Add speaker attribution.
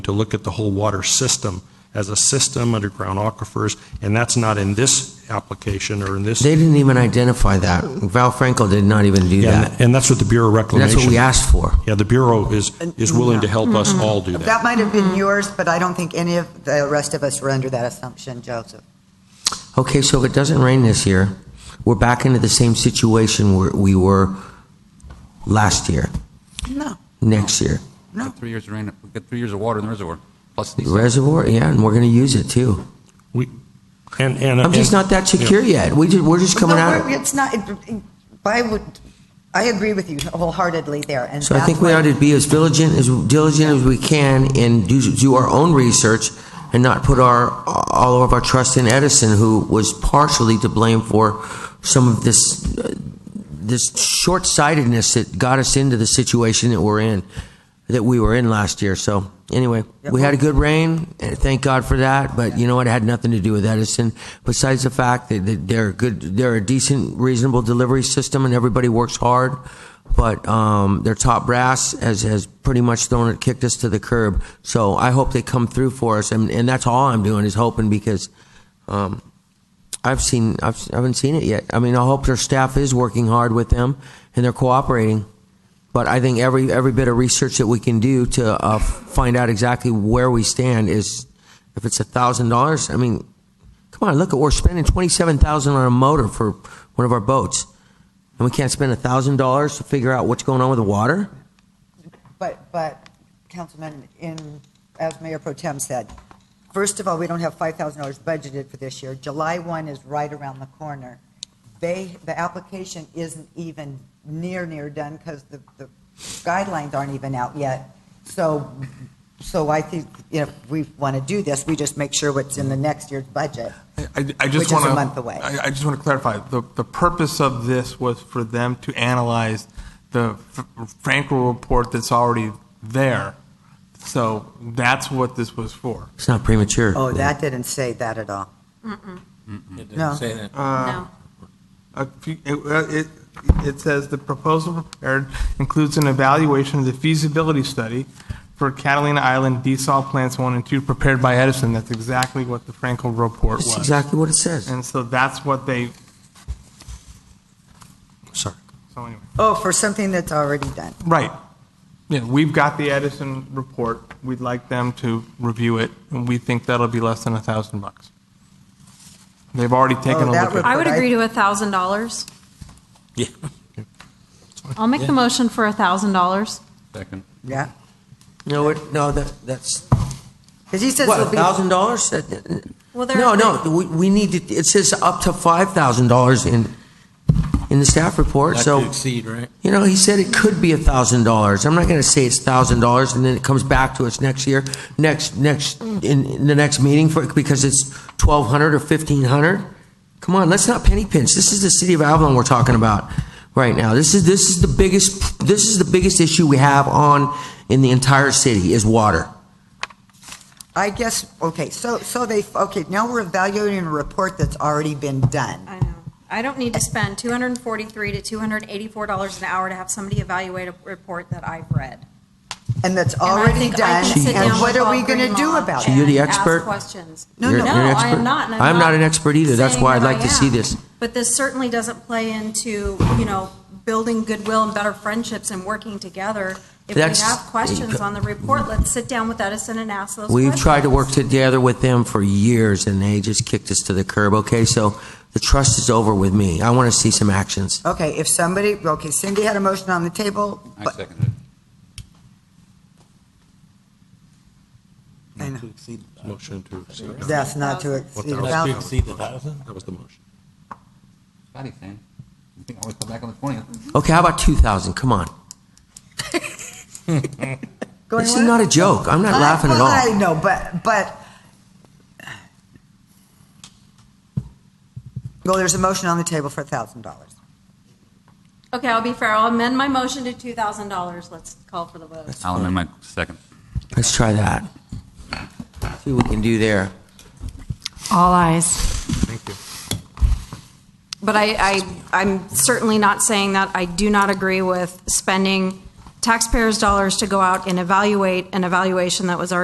Speaker 1: to look at the whole water system as a system, underground aquifers, and that's not in this application or in this.
Speaker 2: They didn't even identify that. Val Frankel did not even do
Speaker 1: Yeah,
Speaker 2: that.
Speaker 1: And that's what the Bureau of
Speaker 2: That's
Speaker 1: Reclamation.
Speaker 2: what we asked for.
Speaker 1: Yeah, the Bureau is, is willing to help us all do that.
Speaker 3: That might have been yours, but I don't think any of the rest of us were under that assumption, Joseph.
Speaker 2: Okay, so if it doesn't rain this year, we're back into the same situation where we were last year,
Speaker 3: No.
Speaker 2: next year.
Speaker 3: No.
Speaker 4: We got three years of rain, we got three years of water in the reservoir, plus these.
Speaker 2: Reservoir, yeah, and we're going to use it too.
Speaker 1: We, and, and.
Speaker 2: I'm just
Speaker 1: and-
Speaker 2: not that secure yet. We just, we're just coming
Speaker 3: No,
Speaker 2: out.
Speaker 3: we're- It's not, it- I would, I agree with you wholeheartedly there, and
Speaker 2: So I think
Speaker 3: that's
Speaker 2: we
Speaker 3: why-
Speaker 2: ought to be as diligent as diligent as we can and do, do our own research and not put our all of our trust in Edison, who was partially to blame for some of this uh, this short sightedness that got us into the situation that we're in that we were in last year. So anyway, we had a good rain, and thank God for that. But you know what? It had nothing to do with Edison. Besides the fact that, that they're good, they're a decent, reasonable delivery system, and everybody works hard. But um, their top brass has, has pretty much thrown it, kicked us to the curb. So I hope they come through for us, and, and that's all I'm doing is hoping because um, I've seen I've, I haven't seen it yet. I mean, I hope their staff is working hard with them and they're cooperating. But I think every every bit of research that we can do to uh, find out exactly where we stand is, if it's a thousand dollars, I mean, come on, look at we're spending twenty seven thousand on a motor for one of our boats, and we can't spend a thousand dollars to figure out what's going on with the water.
Speaker 3: But, but, Councilman, in, as Mayor Pro Tem said, first of all, we don't have $5,000 budgeted for this year. July 1 is right around the corner. They, the application isn't even near, near done because the the guidelines aren't even out yet. So, so I think if we want to do this, we just make sure what's in the next year's budget.
Speaker 5: I, I
Speaker 3: Which is
Speaker 5: just
Speaker 3: a
Speaker 5: want to.
Speaker 3: month away.
Speaker 5: I, I just want to clarify, the, the purpose of this was for them to analyze the F- Frankel report that's already there. So that's what this was for.
Speaker 2: It's not premature.
Speaker 3: Oh, that didn't say that at all. No.
Speaker 6: Say that.
Speaker 7: No.
Speaker 5: A few- It, uh, it- it says the proposal prepared includes an evaluation of the feasibility study for Catalina Island desal plants one and two prepared by Edison. That's exactly what the Frankel report
Speaker 2: That's
Speaker 5: was.
Speaker 2: exactly what it says.
Speaker 5: And so that's what they,
Speaker 1: Sorry.
Speaker 5: so anyway.
Speaker 3: Oh, for something that's already done.
Speaker 5: Right. Yeah, we've got the Edison report. We'd like them to review it, and we think that'll be less than a thousand bucks. They've already taken
Speaker 3: Oh,
Speaker 5: a
Speaker 3: that
Speaker 5: look at
Speaker 7: I would
Speaker 3: But I-
Speaker 7: agree to a thousand dollars.
Speaker 6: Yeah.
Speaker 7: I'll make the motion for a thousand dollars.
Speaker 4: Second.
Speaker 3: Yeah.
Speaker 2: No, it, no, that that's
Speaker 3: Because he says
Speaker 2: what
Speaker 3: it'll
Speaker 2: a
Speaker 3: be.
Speaker 2: thousand dollars. That-
Speaker 7: Well, there.
Speaker 2: No, no, we, we need to, it says up to five thousand dollars in, in the staff report,
Speaker 6: Not to
Speaker 2: so,
Speaker 6: exceed, right?
Speaker 2: you know, he said it could be a thousand dollars. I'm not gonna say it's thousand dollars and then it comes back to us next year, next, next, in, in the next meeting for, because it's twelve hundred or fifteen hundred. Come on, let's not penny pinch. This is the city of Avalon we're talking about right now. This is, this is the biggest, this is the biggest issue we have on, in the entire city is water.
Speaker 3: I guess, okay, so, so they, okay, now we're evaluating a report that's already been done.
Speaker 7: I know. I don't need to spend two hundred and forty-three to two hundred and eighty-four dollars an hour to have somebody evaluate a report that I've read.
Speaker 3: And that's
Speaker 7: And I
Speaker 3: already
Speaker 7: think I
Speaker 3: done,
Speaker 7: can sit
Speaker 3: and
Speaker 7: down
Speaker 3: what
Speaker 7: with
Speaker 3: are we
Speaker 7: Bob
Speaker 3: going to do
Speaker 7: Greenlaw
Speaker 3: about
Speaker 2: So
Speaker 3: it?
Speaker 2: you're the
Speaker 7: and ask
Speaker 2: expert?
Speaker 7: questions.
Speaker 3: No,
Speaker 2: You're-
Speaker 3: no.
Speaker 2: you're an
Speaker 7: I am
Speaker 2: expert.
Speaker 7: not. and
Speaker 2: I'm not an expert either. That's
Speaker 7: saying
Speaker 2: why I'd
Speaker 7: that
Speaker 2: like
Speaker 7: I
Speaker 2: to see
Speaker 7: am.
Speaker 2: this.
Speaker 7: But this certainly doesn't play into, you know, building goodwill and better friendships and working together. If we
Speaker 2: That's-
Speaker 7: have questions on the report, let's sit down with Edison and ask those questions.
Speaker 2: We've tried to work together with them for years, and they just kicked us to the curb, okay? So the trust is over with me. I want to see some actions.
Speaker 3: Okay, if somebody, okay, Cindy had a motion on the table,
Speaker 4: I
Speaker 3: but-
Speaker 4: seconded it.
Speaker 3: I know.
Speaker 6: Not to exceed. the thousand.
Speaker 1: Motion to exceed.
Speaker 3: that's not to exceed a
Speaker 6: Not to
Speaker 3: thousand.
Speaker 6: exceed the thousand?
Speaker 1: That was the motion.
Speaker 4: Scotty's saying, you think I always come back on the twentieth?
Speaker 2: Okay, how about 2,000? Come on.
Speaker 3: Going
Speaker 2: This is
Speaker 3: what?
Speaker 2: not a joke. I'm not
Speaker 3: I-
Speaker 2: laughing at
Speaker 3: well,
Speaker 2: all.
Speaker 3: I know, but, but, well, there's a motion on the table for a thousand dollars.
Speaker 7: Okay, I'll be fair. I'll amend my motion to two thousand dollars. Let's call for the vote.
Speaker 4: I'll amend my second.
Speaker 2: Let's try that. See what we can do there.
Speaker 8: All eyes.
Speaker 5: Thank you.
Speaker 7: But I, I, I'm certainly not saying that. I do not agree with spending taxpayers' dollars to go out and evaluate an evaluation that was already